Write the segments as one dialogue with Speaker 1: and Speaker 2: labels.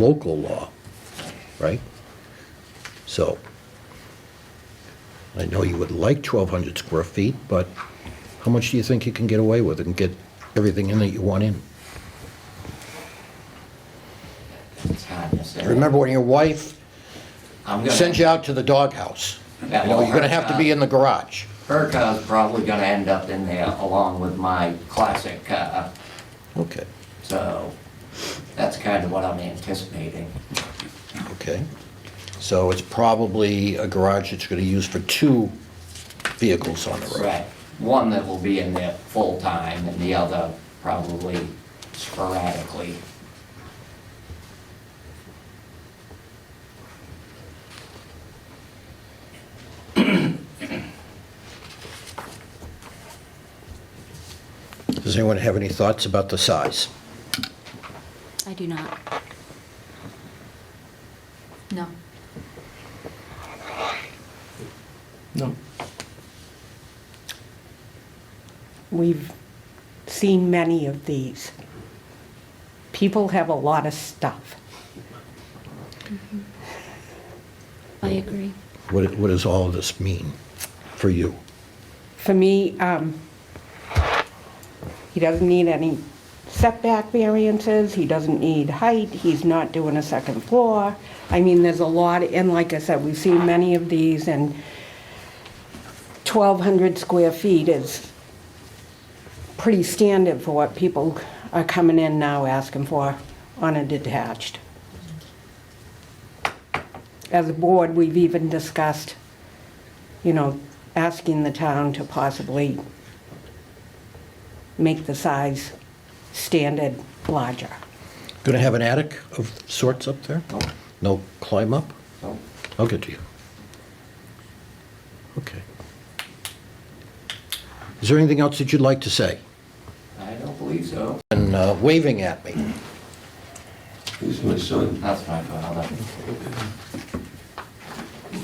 Speaker 1: local law, right? So, I know you would like 1,200 square feet, but how much do you think you can get away with and get everything in that you want in?
Speaker 2: It's hard to say.
Speaker 1: Remember when your wife
Speaker 2: I'm gonna-
Speaker 1: sends you out to the doghouse? You
Speaker 2: Yeah,
Speaker 1: know,
Speaker 2: well,
Speaker 1: you're gonna have to be in the garage.
Speaker 2: Her car's probably gonna end up in there along with my classic car,
Speaker 1: Okay,
Speaker 2: so that's kind of what I'm anticipating.
Speaker 1: okay. So it's probably a garage that's gonna use for two vehicles on the road.
Speaker 2: Right, one that will be in there full-time and the other probably sporadically.
Speaker 1: Does anyone have any thoughts about the size?
Speaker 3: I do not. No.
Speaker 4: No.
Speaker 5: We've seen many of these. People have a lot of stuff.
Speaker 3: I agree.
Speaker 1: What, what does all of this mean for you?
Speaker 5: For me, um, he doesn't need any setback variances, he doesn't need height, he's not doing a second floor. I mean, there's a lot, and like I said, we've seen many of these, and 1,200 square feet is pretty standard for what people are coming in now asking for on a detached. As a board, we've even discussed, you know, asking the town to possibly make the size standard larger.
Speaker 1: Going to have an attic of sorts up there?
Speaker 2: Nope,
Speaker 1: No climb up?
Speaker 2: nope.
Speaker 1: I'll get to you. Okay. Is there anything else that you'd like to say?
Speaker 2: I don't believe so.
Speaker 1: And uh, waving at me.
Speaker 4: He's my son.
Speaker 2: That's my father.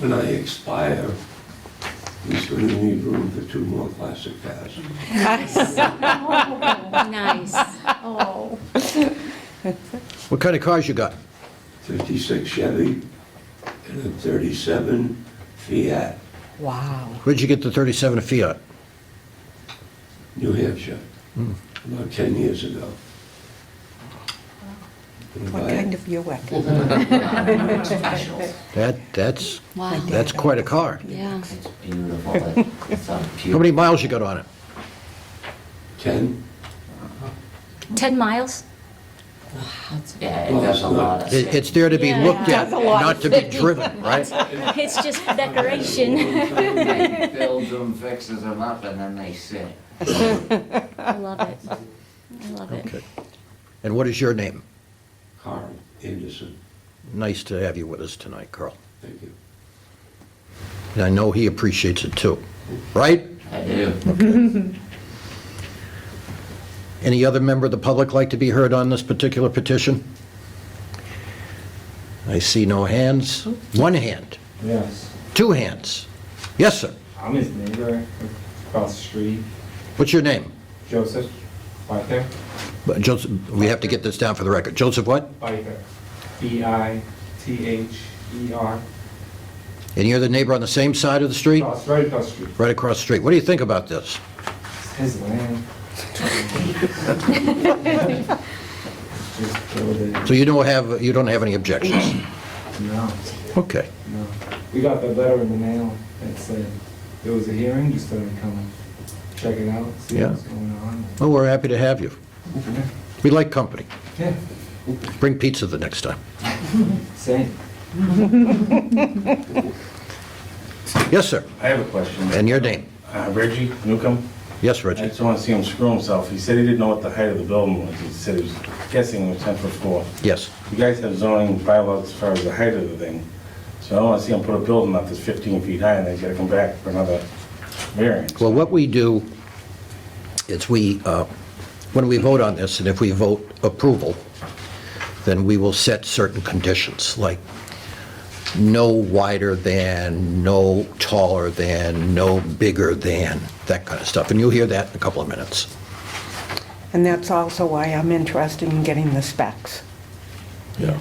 Speaker 4: When I expire, he's going to need room for two more classic cars.
Speaker 3: Nice.
Speaker 1: What kind of cars you got?
Speaker 4: 56 Chevy and a 37 Fiat,
Speaker 5: Wow.
Speaker 1: Where'd you get the 37 Fiat?
Speaker 4: New Hampshire, about 10 years ago. Gonna
Speaker 5: What
Speaker 4: buy it.
Speaker 5: kind of Buick?
Speaker 2: Special.
Speaker 1: That, that's,
Speaker 3: Wow.
Speaker 1: that's quite a car.
Speaker 3: Yeah.
Speaker 2: It's beautiful. It's a
Speaker 1: How many
Speaker 2: beautiful.
Speaker 1: miles you got on it?
Speaker 4: 10?
Speaker 3: 10 miles?
Speaker 2: Yeah, it does a lot of.
Speaker 1: It- It's there to be
Speaker 3: Yeah.
Speaker 1: looked at,
Speaker 5: That's a lot
Speaker 1: not
Speaker 5: of
Speaker 1: to be
Speaker 5: city.
Speaker 1: driven, right?
Speaker 3: It's just decoration.
Speaker 2: Builds them, fixes them up, and then they sit.
Speaker 3: I love it. I love it.
Speaker 1: Okay. And what is your name?
Speaker 4: Carl Anderson,
Speaker 1: Nice to have you with us tonight, Carl.
Speaker 4: thank you.
Speaker 1: And I know he appreciates it too, right?
Speaker 2: I do.
Speaker 1: Any other member of the public like to be heard on this particular petition? I see no hands. One hand,
Speaker 6: Yes,
Speaker 1: two hands. Yes, sir.
Speaker 6: I'm his neighbor across the street,
Speaker 1: What's your name?
Speaker 6: Joseph Biker,
Speaker 1: Uh, Joseph, we have to get this down for the record. Joseph what?
Speaker 6: Biker, B-I-T-H-E-R,
Speaker 1: And you're the neighbor on the same side of the street?
Speaker 6: across, right across the street.
Speaker 1: Right across the street. What do you think about this?
Speaker 6: It's his land. Just build it,
Speaker 1: So you don't have, you don't have any objections?
Speaker 6: no,
Speaker 1: Okay.
Speaker 6: no. We got the letter in the mail that said there was a hearing, you started coming, check it out, see
Speaker 1: Yeah.
Speaker 6: what's going on.
Speaker 1: Well, we're happy to have you. We like company.
Speaker 6: Yeah,
Speaker 1: Bring pizza the next time.
Speaker 6: same.
Speaker 1: Yes, sir.
Speaker 7: I have a question.
Speaker 1: And your name?
Speaker 7: Uh, Reggie Newcomb,
Speaker 1: Yes,
Speaker 7: I
Speaker 1: Reggie.
Speaker 7: just want to see him screw himself. He said he didn't know what the height of the building was. He said he was guessing it was 10 foot 4.
Speaker 1: Yes.
Speaker 7: You guys have zoning bylaws as far as the height of the thing. So I don't want to see him put a building up that's 15 feet high and then he's got to come back for another variance.
Speaker 1: Well, what we do is we, uh, when we vote on this, and if we vote approval, then we will set certain conditions, like no wider than, no taller than, no bigger than, that kind of stuff. And you'll hear that in a couple of minutes.
Speaker 5: And that's also why I'm interested in getting the specs.
Speaker 1: Yeah.